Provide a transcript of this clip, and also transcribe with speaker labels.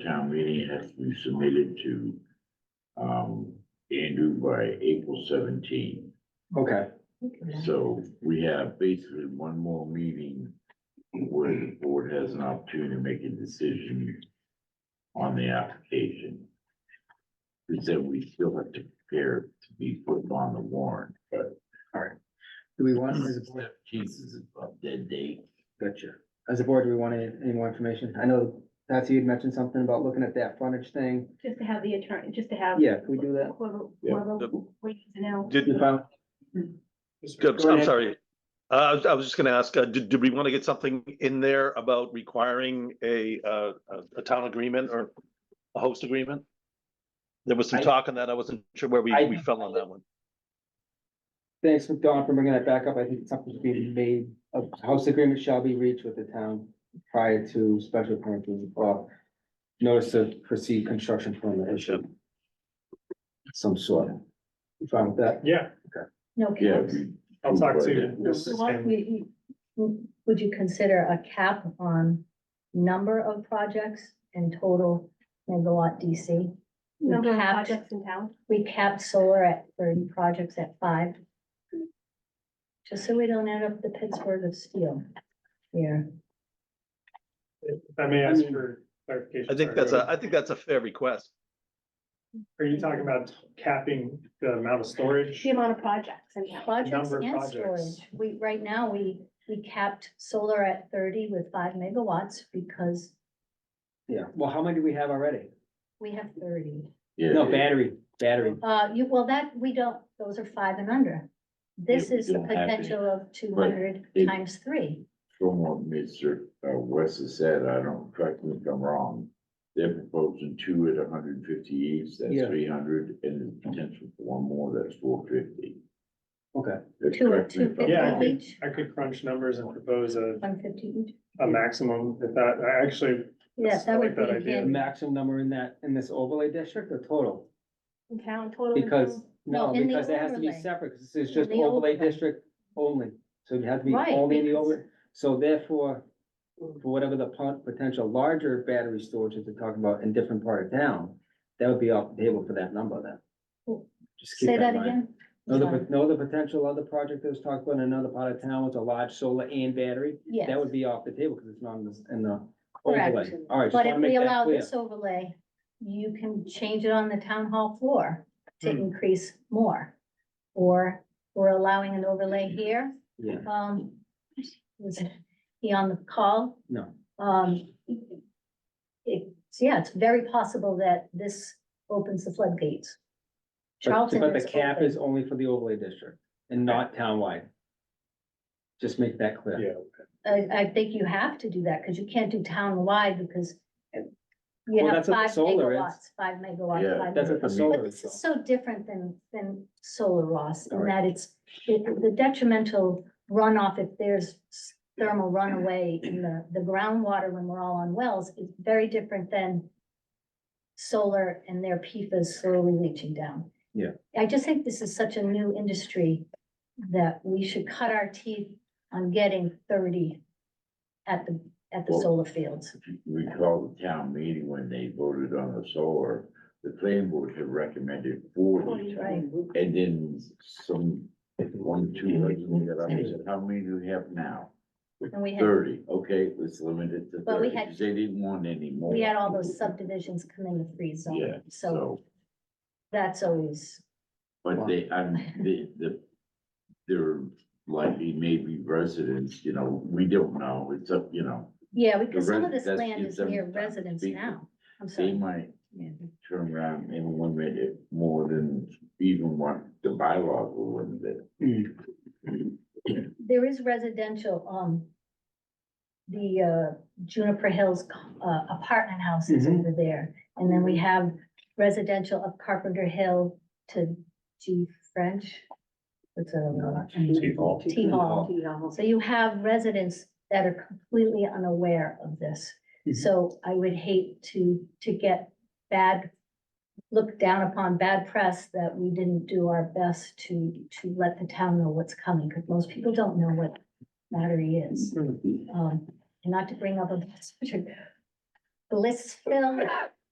Speaker 1: town meeting has to be submitted to, um, Andrew by April seventeenth.
Speaker 2: Okay,
Speaker 1: So we have basically one more meeting where the board has an opportunity to make a decision on the application. We said we still have to prepare it to be put on the warrant, but
Speaker 2: do we want, as a board,
Speaker 1: seventeenth is a dead date.
Speaker 2: gotcha, as a board, do we want any, any more information? I know Nancy, you'd mentioned something about looking at that frontage thing.
Speaker 3: Just to have the attorney, just to have.
Speaker 2: Yeah, can we do that?
Speaker 3: Whoever,
Speaker 1: Yeah.
Speaker 3: whoever
Speaker 4: The-
Speaker 3: waits to know.
Speaker 4: Did,
Speaker 2: You found-
Speaker 4: I'm
Speaker 2: Go ahead.
Speaker 4: sorry. Uh, I was, I was just gonna ask, uh, did, did we want to get something in there about requiring a, uh, a, a town agreement or a host agreement? There was some
Speaker 2: I-
Speaker 4: talk on that. I wasn't sure where we,
Speaker 2: I-
Speaker 4: we fell on that one.
Speaker 2: Thanks, Don, for bringing that back up. I think something's being made, a house agreement shall be reached with the town prior to special permit, being- or notice of proceed construction permit issue. Some sort. You fine with that?
Speaker 5: Yeah,
Speaker 6: No
Speaker 1: Yeah.
Speaker 6: caps.
Speaker 1: we-
Speaker 5: I'll talk
Speaker 1: Yeah.
Speaker 5: to
Speaker 6: So
Speaker 5: Mrs.
Speaker 6: what
Speaker 5: Hammond.
Speaker 6: we- Would you consider a cap on number of projects and total megawatt DC? We
Speaker 3: Number of
Speaker 6: capped-
Speaker 3: projects in town.
Speaker 6: We capped solar at thirty projects at five. Just so we don't end up the Pittsburgh of steel here.
Speaker 5: If I may ask for clarification.
Speaker 4: I think that's a, I think that's a fair request.
Speaker 5: Are you talking about capping the amount of storage?
Speaker 3: The amount of projects in town.
Speaker 6: Projects
Speaker 5: Number of
Speaker 6: and
Speaker 5: projects.
Speaker 6: storage. We, right now, we, we capped solar at thirty with five megawatts because
Speaker 2: Yeah, well, how many do we have already?
Speaker 6: we have thirty.
Speaker 1: Yeah,
Speaker 2: No,
Speaker 1: yeah.
Speaker 2: battery, battery.
Speaker 6: Uh, you, well, that, we don't, those are five and under. This
Speaker 1: Yeah, we
Speaker 6: is the
Speaker 1: don't have any.
Speaker 6: potential of two hundred
Speaker 1: it-
Speaker 6: times three.
Speaker 1: From what Mr. uh, West has said, I don't, correct me if I'm wrong, they're proposing two at hundred and fifty each, that's
Speaker 2: Yeah.
Speaker 1: three hundred, and the potential for one more, that's four fifty.
Speaker 2: Okay,
Speaker 6: Two at two
Speaker 5: Yeah.
Speaker 6: fifty each,
Speaker 5: I could crunch numbers and propose a,
Speaker 6: one fifty each.
Speaker 5: a maximum if that, I actually,
Speaker 6: Yeah,
Speaker 5: Yes, I
Speaker 6: that
Speaker 5: like
Speaker 6: would
Speaker 5: that
Speaker 6: be
Speaker 5: idea.
Speaker 2: the
Speaker 6: in,
Speaker 2: maximum number in that, in this overlay district or total?
Speaker 3: In town, total. in
Speaker 2: Because,
Speaker 3: town.
Speaker 2: no,
Speaker 6: No, in the
Speaker 2: because that has to be
Speaker 6: overlay.
Speaker 2: separate, because this is
Speaker 6: In
Speaker 2: just
Speaker 6: the
Speaker 2: overlay
Speaker 6: overlay.
Speaker 2: district only. So you have to be
Speaker 6: Right,
Speaker 2: only in the
Speaker 6: because-
Speaker 2: overlay. So therefore, for whatever the pot- potential larger battery storage that they're talking about in different part of town, that would be off the table for that number then.
Speaker 6: Cool.
Speaker 2: Just keep
Speaker 6: say that
Speaker 2: in mind.
Speaker 6: again.
Speaker 2: No, the,
Speaker 6: Sorry.
Speaker 2: pot- no, the potential other project that was talked about in another part of town with a large solar and battery,
Speaker 6: Yes,
Speaker 2: that would be off the table because it's not in the, in the
Speaker 6: Correct.
Speaker 2: overlay. All right, just
Speaker 6: but
Speaker 2: want
Speaker 6: if
Speaker 2: to make
Speaker 6: we
Speaker 2: that
Speaker 6: allow
Speaker 2: clear.
Speaker 6: this overlay, you can change it on the town hall floor to
Speaker 5: Hmm.
Speaker 6: increase more. Or we're allowing an overlay here,
Speaker 2: Yeah,
Speaker 6: um, was he on the call?
Speaker 2: no,
Speaker 6: Um, it's, yeah, it's very possible that this opens the floodgates.
Speaker 2: but,
Speaker 6: Charlton
Speaker 2: but the
Speaker 6: is
Speaker 2: cap
Speaker 6: open.
Speaker 2: is only for the overlay district and not townwide. Just make that clear.
Speaker 5: yeah,
Speaker 6: I, I think you have to do that, because you can't do town-wide because you
Speaker 2: Well,
Speaker 6: have
Speaker 2: that's what the
Speaker 6: five
Speaker 2: solar is.
Speaker 6: megawatts, five
Speaker 1: Yeah,
Speaker 6: megawatts. five
Speaker 2: That's what
Speaker 6: megawatts.
Speaker 2: the
Speaker 1: I mean-
Speaker 2: solar
Speaker 6: But
Speaker 2: is.
Speaker 6: this
Speaker 2: though.
Speaker 6: is so different than, than solar, Ross, in
Speaker 2: Alright.
Speaker 6: that it's, it- the detrimental runoff, if there's thermal runaway in the, the groundwater when we're all on wells, is very different than solar and their PFAS slowly leaching down.
Speaker 2: Yeah.
Speaker 6: I just think this is such a new industry that we should cut our teeth on getting thirty at the, at the
Speaker 1: Well-
Speaker 6: solar fields.
Speaker 1: If you Recall the town meeting when they voted on the solar, the planning board had recommended forty.
Speaker 6: Right.
Speaker 1: And then some, one, two, I said, how many do we have now?
Speaker 6: And we had-
Speaker 1: Thirty, okay, let's limit it to
Speaker 6: But we
Speaker 1: thirty,
Speaker 6: had-
Speaker 1: 'cause they didn't want any more.
Speaker 6: We had all those subdivisions come in the free
Speaker 1: Yeah,
Speaker 6: zone, so
Speaker 1: so,
Speaker 6: that's always,
Speaker 1: but they, I'm, the, the, there likely maybe residents, you know, we don't know, it's up, you know,
Speaker 6: yeah, because
Speaker 1: The
Speaker 6: some
Speaker 1: res-
Speaker 6: of this
Speaker 1: that's-
Speaker 6: land
Speaker 1: it's
Speaker 6: is
Speaker 1: a-
Speaker 6: near residents
Speaker 1: big-
Speaker 6: now. I'm
Speaker 1: they
Speaker 6: sorry.
Speaker 1: might
Speaker 6: Yeah.
Speaker 1: turn around and limit it more than even what the bylaws will limit it.
Speaker 6: There is residential, um, the, uh, Juniper Hills, uh, apartment houses
Speaker 1: Mm-hmm.
Speaker 2: Mhm.
Speaker 6: over there. And then we have residential of Carpenter Hill to G French. What's that?
Speaker 5: T Hall.
Speaker 6: T Hall. So you have residents that are completely unaware of this.
Speaker 2: Mhm.
Speaker 6: So I would hate to, to get bad, look down upon bad press that we didn't do our best to, to let the town know what's coming, because most people don't know what battery is. Um, and not to bring up a bad subject, Blissville